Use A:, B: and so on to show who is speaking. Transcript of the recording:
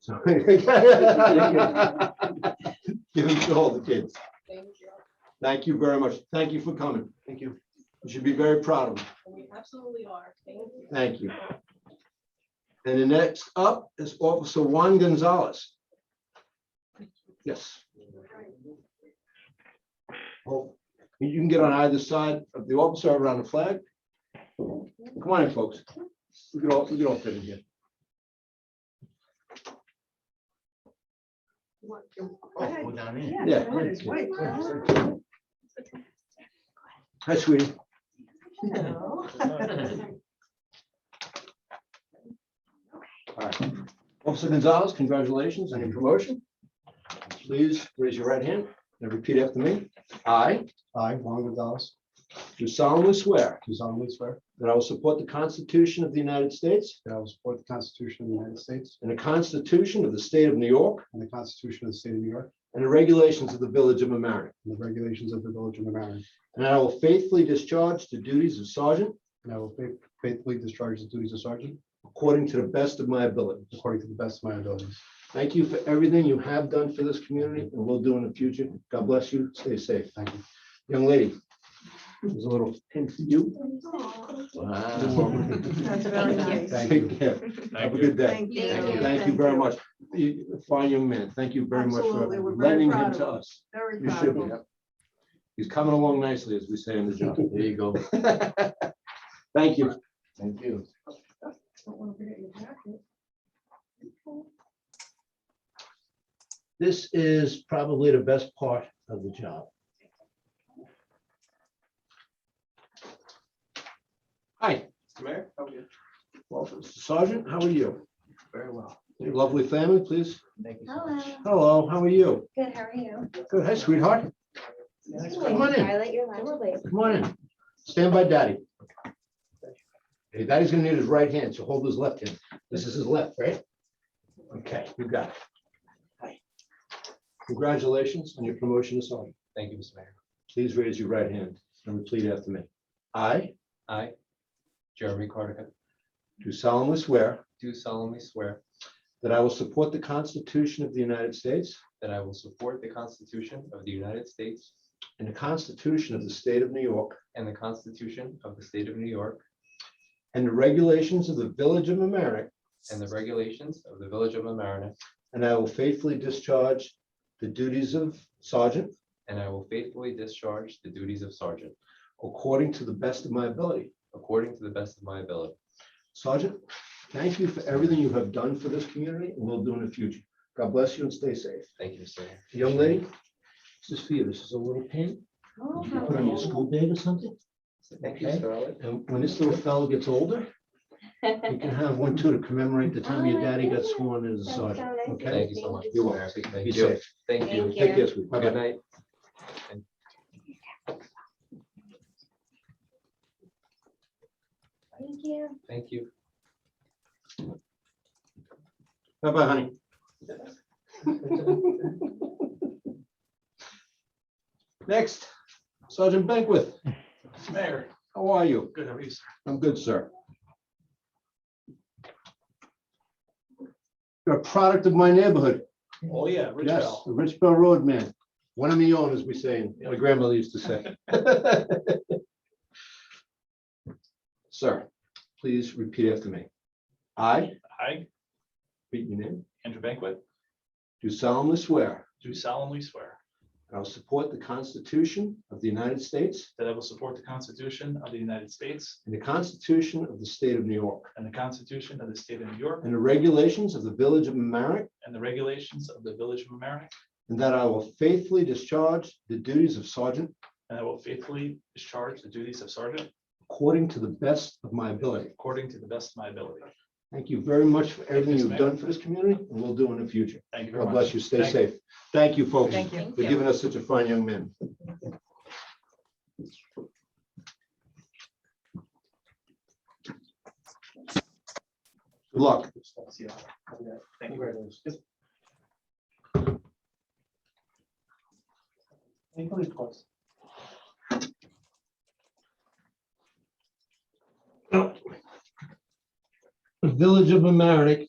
A: So- Give it to all the kids.
B: Thank you.
A: Thank you very much. Thank you for coming.
C: Thank you.
A: You should be very proud of them.
B: We absolutely are. Thank
A: Thank
B: you.
A: you. And the next up is Officer Juan Gonzalez. Yes. Well, You can get on either side of the officer around the flag. Come on in, folks. We can all, we can all fit in here. Oh,
C: Go down in.
A: Yeah. Hi, sweetie. Officer Gonzalez, congratulations on your promotion. Please raise your right hand and repeat after me. I
D: I, Juan Gonzalez,
A: do solemnly swear
D: do solemnly swear
A: that I will support the Constitution of the United States
D: that I will support the Constitution of the United States
A: and the Constitution of the State of New York
D: and the Constitution of the State of New York
A: and the regulations of the Village of Mamaroneck.
D: and the regulations of the Village of Mamaroneck.
A: And I will faithfully discharge the duties of sergeant
D: And I will faith- faithfully discharge the duties of sergeant
A: according to the best of my ability.
D: according to the best of my abilities.
A: Thank you for everything you have done for this community and will do in the future. God bless you. Stay safe.
D: Thank you.
A: Young lady, there's a little hint for you.
C: Wow.
E: That's very nice.
D: Thank you.
A: Take care. Have
C: Thank
A: a
C: you.
A: good day.
E: Thank you.
B: Thank you.
A: Thank you very much. You- Fine young man. Thank you very much for
E: Absolutely. We're very
A: lending him
E: proud of
A: to
E: him.
A: us.
E: Very
A: You should be.
E: proud.
A: He's coming along nicely, as we say in the job.
C: There you go.
A: Thank you.
C: Thank you.
A: This is probably the best part of the job. Hi.
C: Mayor, how are you?
A: Welcome. Sergeant, how are you?
C: Very well.
A: Your Lovely family, please.
C: Thank you so
F: Hello,
C: much.
A: Hello, how are you?
F: good, how are you?
A: Good. Hi, sweetheart. Come on in.
F: Violet, you're lovely.
A: Come on in. Stand by daddy. Hey, Daddy's gonna need his right hand, so hold his left hand. This is his left, right? Okay, you got it. Hi. Congratulations on your promotion to sergeant.
C: Thank you, Mr. Mayor.
A: Please raise your right hand and repeat after me. I
C: I, Jeremy Cardigan,
A: do solemnly swear
C: do solemnly swear
A: that I will support the Constitution of the United States
C: that I will support the Constitution of the United States
A: and the Constitution of the State of New York
C: and the Constitution of the State of New York
A: and the regulations of the Village of Mamaroneck,
C: and the regulations of the Village of Amerenet,
A: and I will faithfully discharge the duties of sergeant
C: and I will faithfully discharge the duties of sergeant
A: according to the best of my ability.
C: according to the best of my ability.
A: Sergeant, thank you for everything you have done for this community and will do in the future. God bless you and stay safe.
C: Thank you, Mr. Mayor.
A: Young lady, this is for you. This is a little pin.
F: Oh,
A: You Put on your school bag or something.
C: Thank you,
A: Okay.
C: Mr. Rowley.
A: And when this little fellow gets older, you can have one too to commemorate the time your daddy got sworn in as a
F: That's
A: sergeant.
F: so nice.
A: Okay,
C: Thank you so much.
A: You're
C: Mr.
A: welcome. be
C: Mayor. Thank you.
A: safe.
C: Thank you.
F: Thank
A: Take
F: you.
A: care, sweetie.
C: Good night.
F: Thank you.
C: Thank you.
A: Bye bye, honey. Next, Sergeant Beckwith. Mayor. How are you? Good, how are you, sir? I'm good, sir. You're a product of my neighborhood.
G: Oh, yeah,
A: Yes,
G: Richville.
A: the Rich Bell Road man. One of me own, as we say, my grandmother used to say. Sir, please repeat after me. I,
G: I,
A: repeat your name,
G: Andrew Banquet,
A: do solemnly swear
G: do solemnly swear
A: that I will support the Constitution of the United States
G: that I will support the Constitution of the United States
A: and the Constitution of the State of New York
G: and the Constitution of the State of New York
A: and the regulations of the Village of Mamaroneck,
G: and the regulations of the Village of Mamaroneck,
A: and that I will faithfully discharge the duties of sergeant
G: and I will faithfully discharge the duties of sergeant
A: according to the best of my ability.
G: according to the best of my ability.
A: Thank you very much for everything
G: Yes,
A: you've
G: ma'am.
A: done for this community and will do in the future.
G: Thank you very
A: God
G: much.
A: bless you. Stay
G: Thank you.
A: safe. Thank you, folks,
E: Thank you.
A: for giving us such a fine young man. Good luck.
G: Yeah, Thank you very much.
A: The Village of Amerenik